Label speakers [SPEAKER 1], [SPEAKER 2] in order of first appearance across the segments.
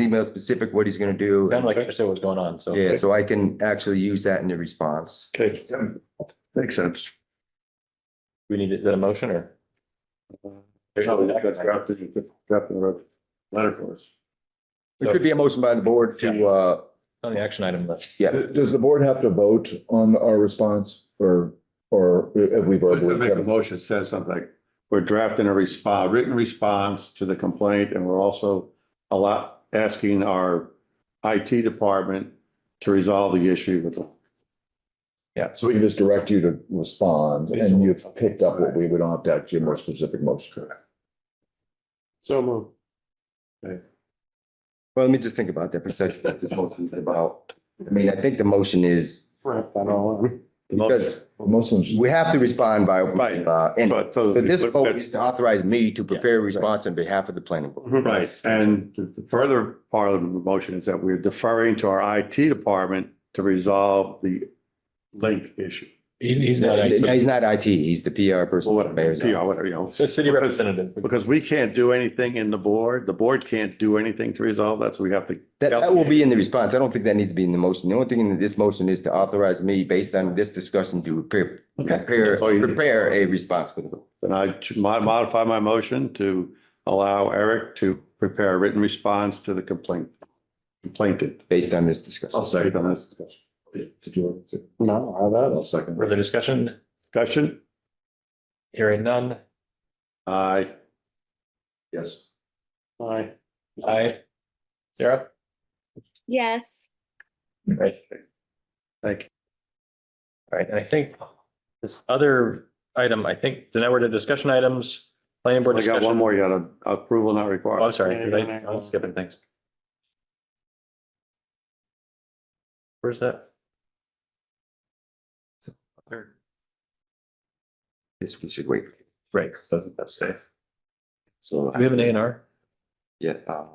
[SPEAKER 1] email specific what he's gonna do.
[SPEAKER 2] Sounded like I understood what was going on, so.
[SPEAKER 1] Yeah, so I can actually use that in the response.
[SPEAKER 3] Okay. Makes sense.
[SPEAKER 2] We need, is that a motion or?
[SPEAKER 3] Letter for us.
[SPEAKER 1] There could be a motion by the board to, uh,
[SPEAKER 2] On the action item list.
[SPEAKER 1] yeah,
[SPEAKER 4] Th- Does the board have to vote on our response or, or if we
[SPEAKER 3] Let's make a
[SPEAKER 4] verbally?
[SPEAKER 3] motion, that says something like, we're drafting a response, written response to the complaint, and we're also a lot, asking our IT department to resolve the issue with the
[SPEAKER 4] So we can just direct you to respond and you've picked up what we would opt out to your more specific motion.
[SPEAKER 3] So move.
[SPEAKER 1] well, let me just think about that for a second. What this motion is about. I mean, I think the motion is,
[SPEAKER 3] Wrap that all up.
[SPEAKER 1] because
[SPEAKER 4] Mostly.
[SPEAKER 1] we have to respond by open,
[SPEAKER 3] Right.
[SPEAKER 1] uh, and
[SPEAKER 3] So- so-
[SPEAKER 1] so this vote is to authorize me to prepare a response on behalf of the planning board.
[SPEAKER 3] Right, and the the further part of the motion is that we're deferring to our IT department to resolve the link issue.
[SPEAKER 2] He- He's not,
[SPEAKER 1] He's
[SPEAKER 2] the
[SPEAKER 1] not IT, he's the PR person.
[SPEAKER 3] Or whatever,
[SPEAKER 1] Mayor's
[SPEAKER 3] PR,
[SPEAKER 1] office.
[SPEAKER 3] whatever, you know.
[SPEAKER 2] city representative.
[SPEAKER 3] Because we can't do anything in the board, the board can't do anything to resolve that, so we have to.
[SPEAKER 1] That, that will be in the response. I don't think that needs to be in the motion. The only thing in this motion is to authorize me, based on this discussion, to prepare,
[SPEAKER 3] Okay.
[SPEAKER 1] prepare,
[SPEAKER 3] That's all you need.
[SPEAKER 1] prepare a response for the vote.
[SPEAKER 3] Then I ch- mo- modify my motion to allow Eric to prepare a written response to the complaint. Complainant.
[SPEAKER 1] based on this discussion.
[SPEAKER 2] Oh,
[SPEAKER 3] Based on this discussion.
[SPEAKER 4] No, I have. I'll second.
[SPEAKER 2] Further discussion,
[SPEAKER 3] Discussion?
[SPEAKER 2] hearing none.
[SPEAKER 3] Aye.
[SPEAKER 4] Yes.
[SPEAKER 2] Aye. Aye. Sarah?
[SPEAKER 5] Yes.
[SPEAKER 2] Right.
[SPEAKER 3] Thank you.
[SPEAKER 2] All right, and I think this other item, I think, so now we're to discussion items, planning board
[SPEAKER 3] I got one
[SPEAKER 2] discussion.
[SPEAKER 3] more, you got a- approval not required.
[SPEAKER 2] Oh, I'm sorry, did I- I'm skipping things. Where's that?
[SPEAKER 1] This we should wait.
[SPEAKER 2] Right, so that's safe.
[SPEAKER 1] So.
[SPEAKER 2] Do we have an A and R?
[SPEAKER 1] Yeah. uh,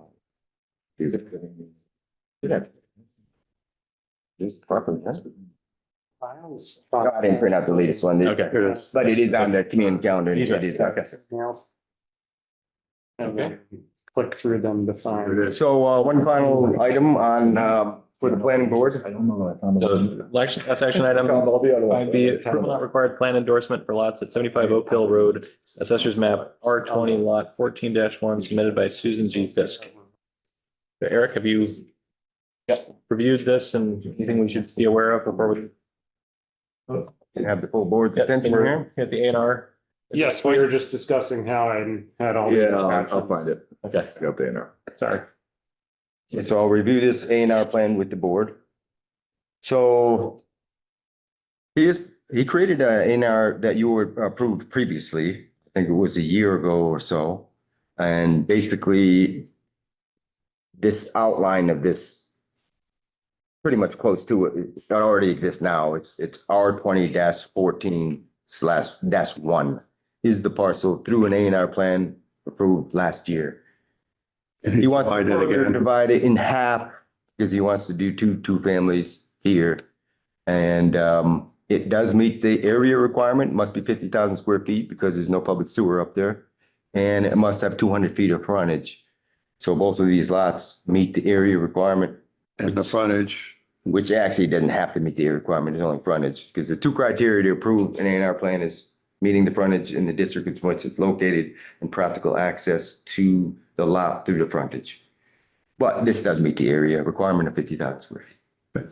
[SPEAKER 1] is it- Yeah. This properly, yes. No, I didn't print out the latest one,
[SPEAKER 2] Okay.
[SPEAKER 3] Here it is.
[SPEAKER 1] but it is on the community calendar. and It is.
[SPEAKER 2] Okay.
[SPEAKER 6] Anything else? And then click through them to
[SPEAKER 3] Here
[SPEAKER 6] find.
[SPEAKER 3] it is.
[SPEAKER 1] So uh, one final item on, um, for the planning board.
[SPEAKER 4] I don't know that I found.
[SPEAKER 2] So, action, that's action item.
[SPEAKER 4] All the other ones.
[SPEAKER 2] Five B, approval not required plan endorsement for lots at seventy-five Oak Hill Road, assessors map R twenty lot fourteen one submitted by Susan G. Fisk. So Eric, have you reviewed this and anything we should be aware of before we?
[SPEAKER 1] Can have the full board's
[SPEAKER 2] Yeah,
[SPEAKER 1] attention here.
[SPEAKER 2] At the A and R,
[SPEAKER 6] Yes, we were just discussing how I had all. these
[SPEAKER 4] Yeah, I'll- I'll
[SPEAKER 6] options.
[SPEAKER 4] find it.
[SPEAKER 2] okay,
[SPEAKER 4] It's Up there now.
[SPEAKER 2] sorry.
[SPEAKER 1] Okay, So I'll review this A and R plan with the board. So he is, he created a A and R that you were approved previously, I think it was a year ago or so. And basically this outline of this pretty much close to it, it already exists now. It's, it's R twenty fourteen slash dash one is the parcel through an A and R plan approved last year. He wants
[SPEAKER 3] Divide
[SPEAKER 1] to
[SPEAKER 3] it
[SPEAKER 1] further
[SPEAKER 3] again.
[SPEAKER 1] divide it in half because he wants to do two, two families here. And um, it does meet the area requirement, must be fifty thousand square feet because there's no public sewer up there. And it must have two hundred feet of frontage. So both of these lots meet the area requirement,
[SPEAKER 3] And the frontage.
[SPEAKER 1] which actually doesn't have to meet the area requirement, it's only frontage. Because the two criteria to approve an A and R plan is meeting the frontage in the district in which it's located and practical access to the lot through the frontage. But this does meet the area requirement of fifty thousand square feet.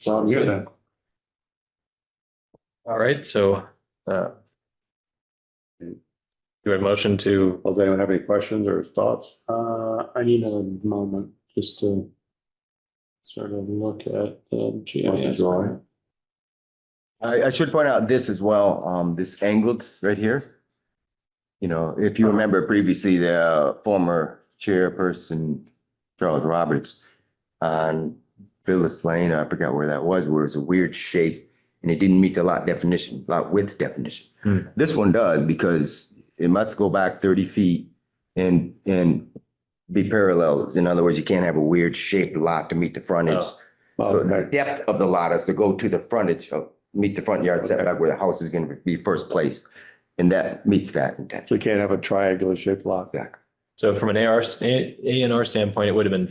[SPEAKER 3] So I'm good.
[SPEAKER 2] All right, so, uh. Do I motion to,
[SPEAKER 3] Does anyone have any questions or thoughts?
[SPEAKER 6] Uh, I need a moment just to sort of look at the
[SPEAKER 3] Want to
[SPEAKER 6] GIS.
[SPEAKER 3] draw it?
[SPEAKER 1] I, I should point out this as well, um, this angled right here. You know, if you remember previously, the uh, former chairperson, Charles Roberts, on Phyllis Lane, I forgot where that was, where it's a weird shape and it didn't meet the lot definition, lot width definition.
[SPEAKER 2] Hmm.
[SPEAKER 1] This one does because it must go back thirty feet and, and be parallel. In other words, you can't have a weird shaped lot to meet the frontage.
[SPEAKER 2] Oh.
[SPEAKER 3] Well,
[SPEAKER 1] So the
[SPEAKER 3] okay.
[SPEAKER 1] depth of the lot is to go to the frontage of, meet the front yard
[SPEAKER 3] Okay.
[SPEAKER 1] setback where the house is gonna be first placed. And that meets that intent.
[SPEAKER 3] So you can't have a triangular shaped lot.
[SPEAKER 1] Exactly.
[SPEAKER 2] So from an AR, A and R standpoint, it would have been